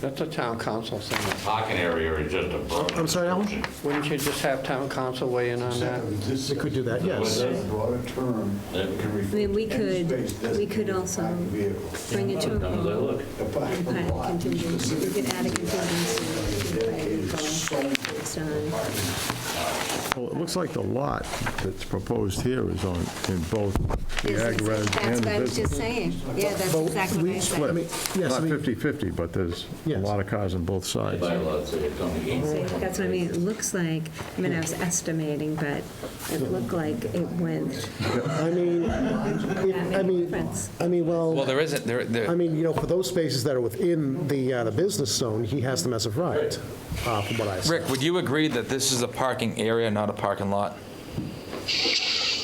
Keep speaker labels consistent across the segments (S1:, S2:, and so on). S1: That's a town council thing.
S2: Parking area is just a broad.
S3: I'm sorry, Alan?
S2: description.
S1: Wouldn't you just have town council weigh in on that?
S3: We could do that, yes.
S4: That's a broader term that can refer
S5: I mean, we
S4: to
S5: could-
S4: any space
S5: we
S4: designated
S5: could
S4: for
S5: also
S4: parked vehicles.
S5: Bring it to a vote.
S4: A
S5: And
S4: parking
S5: add a
S4: lot
S5: contingency, we
S4: specifically
S5: could add a contingency. to
S4: dedicated
S5: the
S4: solely
S5: vote based
S4: for
S5: on-
S4: parking.
S6: Well, it looks like the lot that's proposed here is on, in both the
S5: Yes,
S6: ag res
S5: That's
S6: and
S5: what I was just
S6: business.
S5: saying. Yeah, that's
S3: But
S5: exactly what
S3: we-
S5: I
S3: I mean,
S5: said.
S3: Yes, I
S6: Not
S3: mean-
S6: 50/50, but there's a
S3: Yes.
S6: lot of cars on both sides.
S2: Bylaws say it's only eight.
S5: That's what I mean, it looks like, I mean, I was estimating, but it looked like it went
S3: I mean, if- I
S5: that many
S3: mean,
S5: difference.
S3: I mean,
S7: Well,
S3: well,
S7: there isn't, there, there-
S3: I mean, you know, for those spaces that are within the, uh, the business zone, he has them as of right, uh, from what I see.
S7: Rick, would you agree that this is a parking area, not a parking lot?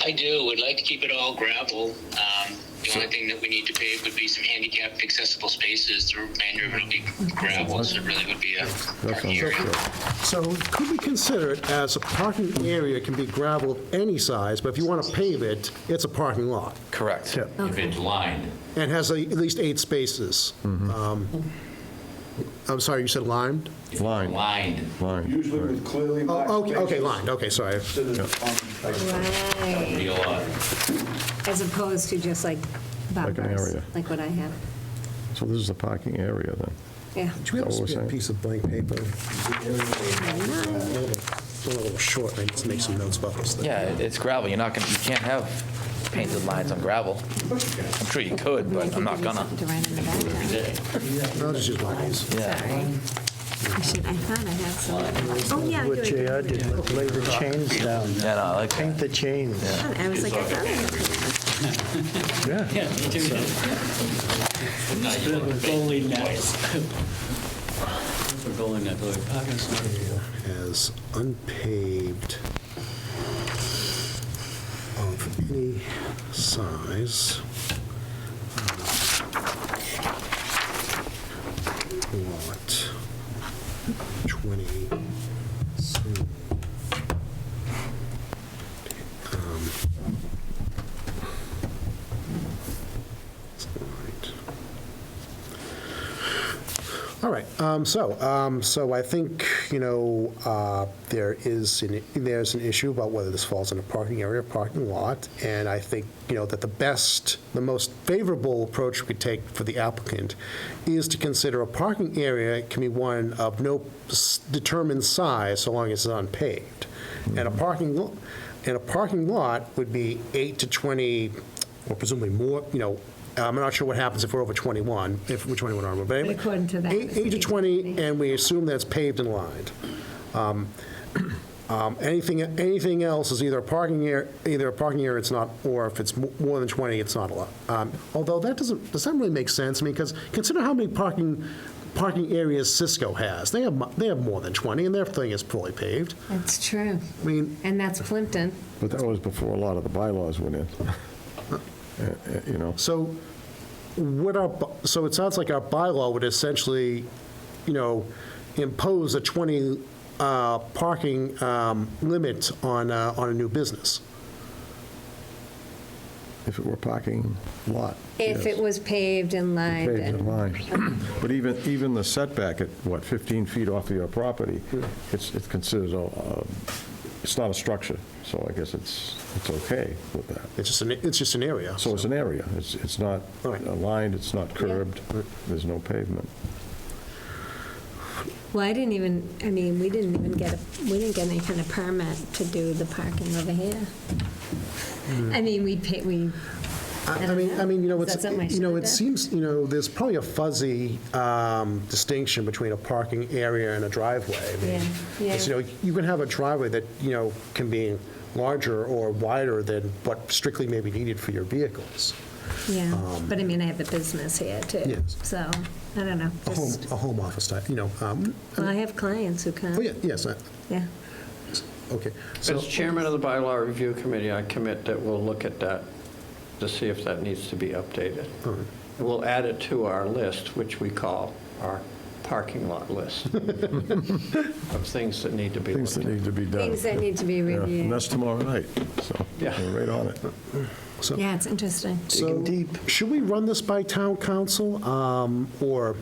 S8: I do. We'd like to keep it all gravel. Um, the only thing that we need to pave would be some handicapped accessible spaces. The remainder of it will be gravel, so it really would be a
S6: That
S8: parking
S6: sounds
S8: area.
S6: good.
S3: So could we consider it as a parking area can be gravel of any size, but if you want to pave it, it's a parking lot
S7: Correct.
S2: If it's lined,
S3: and has a- at least eight spaces.
S6: Mm-hmm.
S3: Um, I'm sorry, you said limed?
S6: Line,
S2: lined.
S6: line.
S4: Usually with clearly marked
S3: Oh,
S4: spaces.
S3: Okay, okay, lined, okay, sorry.
S4: to the- on- like,
S5: Right,
S2: Be a lot.
S5: as opposed to just like
S6: Like an
S5: bumpers,
S6: area.
S5: like what I have.
S6: So this is the parking area then.
S5: Yeah.
S3: Do we have a
S6: Is that what we're
S3: spare
S6: saying?
S3: piece of blank paper? It's a little short, I need to make some notes about this thing.
S7: Yeah, it- it's gravel, you're not gonna, you can't have painted lines on gravel. I'm sure you could, but I'm not gonna.
S5: To write on the back of it.
S3: I'll just use one of these.
S7: Yeah.
S5: Sorry. I should, I thought I had some. Oh, yeah. I do, I
S9: What
S5: do,
S9: JR
S5: I do.
S9: did, lay the chains down,
S7: Yeah, no, I like that.
S9: paint the chains.
S5: I was like, I thought I had some.
S3: As unpaved of any size. Lot 20. Um, Right. All right, um, so, um, so I think, you know, uh, there is, an- there's an issue about whether this falls in a parking area or parking lot, and I think, you know, that the best, the most favorable approach we could take for the applicant is to consider a parking area can be one of no s- determined size, so long as it's unpaved. And a parking, lo- and a parking lot would be eight to 20, or presumably more, you know, I'm not sure what happens if we're over 21, if we're 21 or over, but anyway.
S5: According to that,
S3: Eight
S5: it's
S3: eight to 20,
S5: 20.
S3: and we assume that's paved and lined. Um, um, Anything, anything else is either a parking area, either a parking area it's not, or if it's mo- more than 20, it's not allowed. Um, Although that doesn't, does that really make sense? I mean, because consider how many parking, parking areas Cisco has. They have, mu- they have more than 20, and their thing is fully paved.
S5: That's true.
S3: I mean,
S5: And that's Plimpton.
S6: But that was before a lot of the bylaws went in. Uh, uh, You know,
S3: So what our, bu- so it sounds like our bylaw would essentially, you know, impose a 20 uh, parking um, limit on, uh, on a new business.
S6: if it were parking lot.
S5: If
S6: yes.
S5: it was paved and lined
S6: Paved and
S5: and
S6: lined. But even, even the setback at, what, 15 feet off of your property, it's, it's considered, a- a- it's not a structure, so I guess it's, it's okay with that.
S3: It's just an, it's just an area.
S6: So it's an area, it's, it's not
S3: All right.
S6: aligned, it's not curbed, there's no pavement.
S5: Well, I didn't even, I mean, we didn't even get, a we didn't get any kind of permit to do the parking over here.
S3: Hmm.
S5: I mean, we pay, we,
S3: I I mean, I mean, you know,
S5: Is that
S3: it's,
S5: something I
S3: you know,
S5: should
S3: it
S5: have?
S3: seems, you know, there's probably a fuzzy um, distinction between a parking area and a driveway. I mean,
S5: Yeah, yeah.
S3: it's, You know, you can have a driveway that, you know, can be larger or wider than what strictly may be needed for your vehicles.
S5: yeah, but I mean, I have a business here too,
S3: um, Yes.
S5: so, I don't know,
S3: A home,
S5: just,
S3: a home office type, you know, um,
S5: well, I have clients who come.
S3: oh, yeah, yes, I-
S5: Yeah.
S3: okay. So,
S1: As chairman of the bylaw review committee, I commit that we'll look at that to see if that needs to be updated. We'll add it to our list, which we call our parking lot list of things that need to be
S6: Things
S1: looked
S6: that
S1: at.
S6: need to be done.
S5: Things that need to be
S6: Yeah, And
S5: reviewed.
S6: that's tomorrow night, so
S1: Yeah.
S6: we're right on it.
S5: Yeah, it's interesting.
S9: Digging
S3: so
S9: deep.
S3: should we run this by town council, um, or